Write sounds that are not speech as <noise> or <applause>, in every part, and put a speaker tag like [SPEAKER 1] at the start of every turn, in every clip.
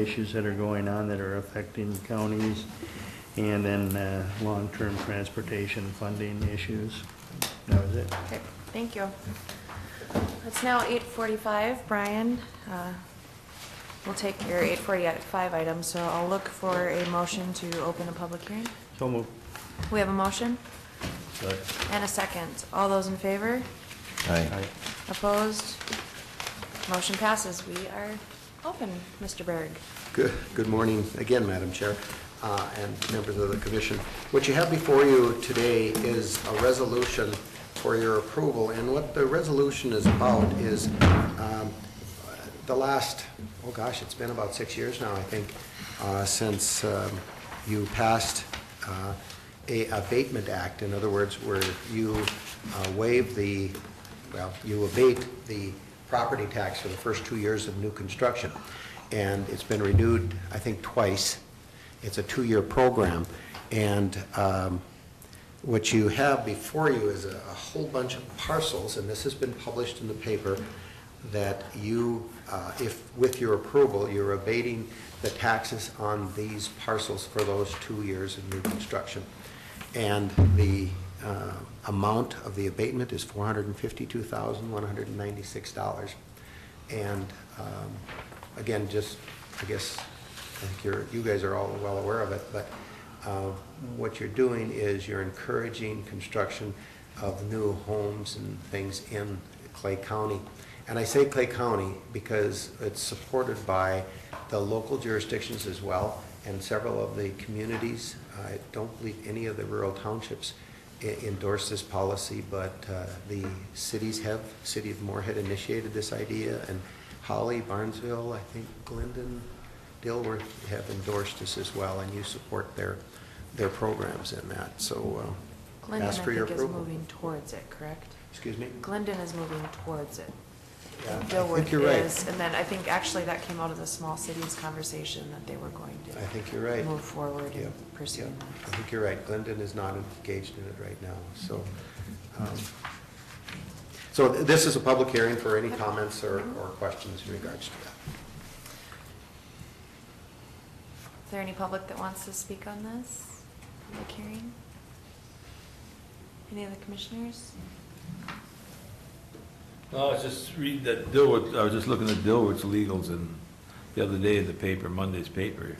[SPEAKER 1] issues that are going on that are affecting counties, and then uh, long-term transportation funding issues. That was it.
[SPEAKER 2] Okay, thank you. It's now eight forty-five, Brian. uh, We'll take your eight forty-five item, so I'll look for a motion to open a public hearing.
[SPEAKER 1] So moved.
[SPEAKER 2] We have a motion
[SPEAKER 1] But
[SPEAKER 2] and a second. All those in favor?
[SPEAKER 1] I-
[SPEAKER 3] Aye.
[SPEAKER 2] Opposed? Motion passes. We are open, Mr. Berg.
[SPEAKER 4] Good good morning again, Madam Chair, uh, and members of the commission. What you have before you today is a resolution for your approval, and what the resolution is about is um, the last, oh gosh, it's been about six years now, I think, uh, since um, you passed uh, a abatement act, in other words, where you uh, waive the, well, you abate the property tax for the first two years of new construction. And it's been renewed, I think, twice. It's a two-year program. And um, what you have before you is a a whole bunch of parcels, and this has been published in the paper, that you, uh, if, with your approval, you're abating the taxes on these parcels for those two years of new construction. And the uh, amount of the abatement is $452,196. And um, again, just, I guess, I think you're, you guys are all well aware of it, but uh, what you're doing is you're encouraging construction of new homes and things in Clay County. And I say Clay County because it's supported by the local jurisdictions as well and several of the communities. I don't believe any of the rural townships e- endorse this policy, but uh, the cities have, City of Moorhead initiated this idea, and Holly, Barnesville, I think Glendon, Dilworth have endorsed this as well, and you support their, their programs in that, so uh,
[SPEAKER 2] Glendon, I
[SPEAKER 4] ask for your
[SPEAKER 2] think, is
[SPEAKER 4] approval.
[SPEAKER 2] moving towards it, correct?
[SPEAKER 4] Excuse me?
[SPEAKER 2] Glendon is moving towards it.
[SPEAKER 4] Yeah, I
[SPEAKER 2] Dilworth
[SPEAKER 4] think you're right.
[SPEAKER 2] is, and then I think actually that came out of the small cities conversation that they were going to.
[SPEAKER 4] I think you're right.
[SPEAKER 2] Move forward
[SPEAKER 4] Yep,
[SPEAKER 2] and
[SPEAKER 4] yep.
[SPEAKER 2] pursue
[SPEAKER 4] I
[SPEAKER 2] that.
[SPEAKER 4] think you're right, Glendon is not engaged in it right now, so. um, So th- this is a public hearing for any comments or, or questions in regards to that.
[SPEAKER 2] Is there any public that wants to speak on this? Public hearing? Any of the commissioners?
[SPEAKER 3] No, I was just reading that Dilworth, I was just looking at Dilworth's legals and the other day in the paper, Monday's paper,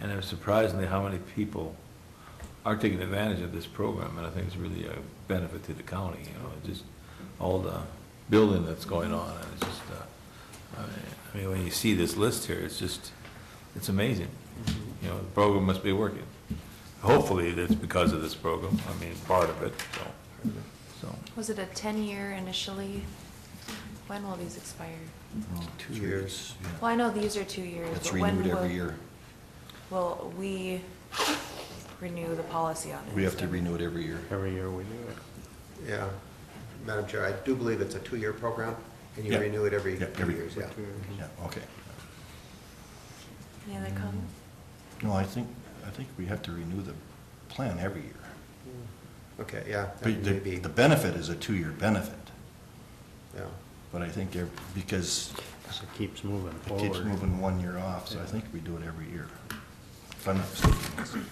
[SPEAKER 3] and it was surprisingly how many people are taking advantage of this program, and I think it's really a benefit to the county, you know, just all the building that's going on, and it's just, uh, I mean- I mean, when you see this list here, it's just, it's amazing. You know, the program must be working. Hopefully, that's because of this program, I mean, part of it, so, so.
[SPEAKER 2] Was it a ten-year initially? When will these expire?
[SPEAKER 5] Oh,
[SPEAKER 4] Two years.
[SPEAKER 2] Well, I know these are two years,
[SPEAKER 5] It's
[SPEAKER 2] but when
[SPEAKER 5] renewed
[SPEAKER 2] will-
[SPEAKER 5] every year.
[SPEAKER 2] Will we renew the policy on it?
[SPEAKER 5] We have to renew it every year.
[SPEAKER 1] Every year we do it.
[SPEAKER 4] Yeah. Madam Chair, I do believe it's a two-year program, and you
[SPEAKER 5] Yeah.
[SPEAKER 4] renew it every
[SPEAKER 5] Yeah,
[SPEAKER 4] two
[SPEAKER 5] every-
[SPEAKER 4] years, yeah.
[SPEAKER 1] Two years.
[SPEAKER 5] Yeah, okay.
[SPEAKER 2] Any other comments?
[SPEAKER 5] No, I think, I think we have to renew the plan every year.
[SPEAKER 4] Okay, yeah, that
[SPEAKER 5] But
[SPEAKER 4] may
[SPEAKER 5] the,
[SPEAKER 4] be,
[SPEAKER 5] the benefit is a two-year benefit, <laughs>
[SPEAKER 4] yeah.
[SPEAKER 5] but I think ev- because
[SPEAKER 1] So it keeps moving
[SPEAKER 5] it
[SPEAKER 1] forward.
[SPEAKER 5] keeps moving one year off, so I think we do it every year. If I'm not mistaken,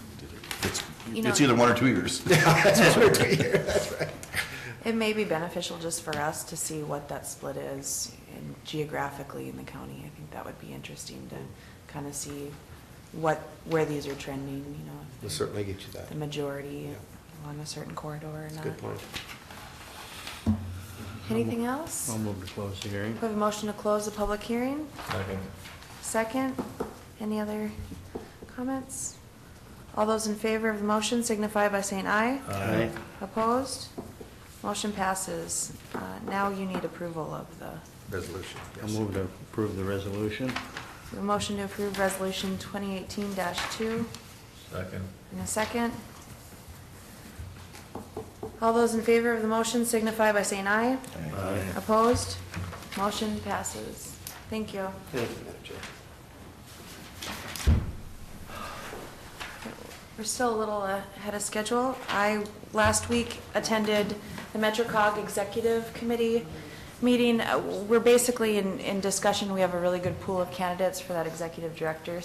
[SPEAKER 5] it's,
[SPEAKER 2] You know-
[SPEAKER 5] it's either one or
[SPEAKER 2] <laughs>
[SPEAKER 5] two years.
[SPEAKER 2] It may be beneficial just for us to see what that split is in- geographically in the county. I think that would be interesting to kind of see what, where these are trending, you know. if
[SPEAKER 4] We'll certainly get you that.
[SPEAKER 2] The majority
[SPEAKER 4] Yeah.
[SPEAKER 2] along a certain corridor or
[SPEAKER 4] It's a
[SPEAKER 2] not.
[SPEAKER 4] good point.
[SPEAKER 2] Anything else?
[SPEAKER 1] I'll move to close the hearing.
[SPEAKER 2] We have a motion to close the public hearing. Second, any other comments? All those in favor of the motion signify by saying aye.
[SPEAKER 1] Aye.
[SPEAKER 2] Opposed? Motion passes. Uh, Now you need approval of the,
[SPEAKER 4] Resolution,
[SPEAKER 1] I'll
[SPEAKER 4] yes.
[SPEAKER 1] move to approve the resolution.
[SPEAKER 2] the motion to approve Resolution 2018-2.
[SPEAKER 3] Second.
[SPEAKER 2] In a second. All those in favor of the motion signify by saying aye.
[SPEAKER 5] Aye.
[SPEAKER 2] Opposed? Motion passes. Thank you.
[SPEAKER 4] Thank you, Madam Chair.
[SPEAKER 2] We're still a little uh, ahead of schedule. I, last week, attended the MetroCog Executive Committee meeting, uh, we're basically in, in discussion, we have a really good pool of candidates for that executive director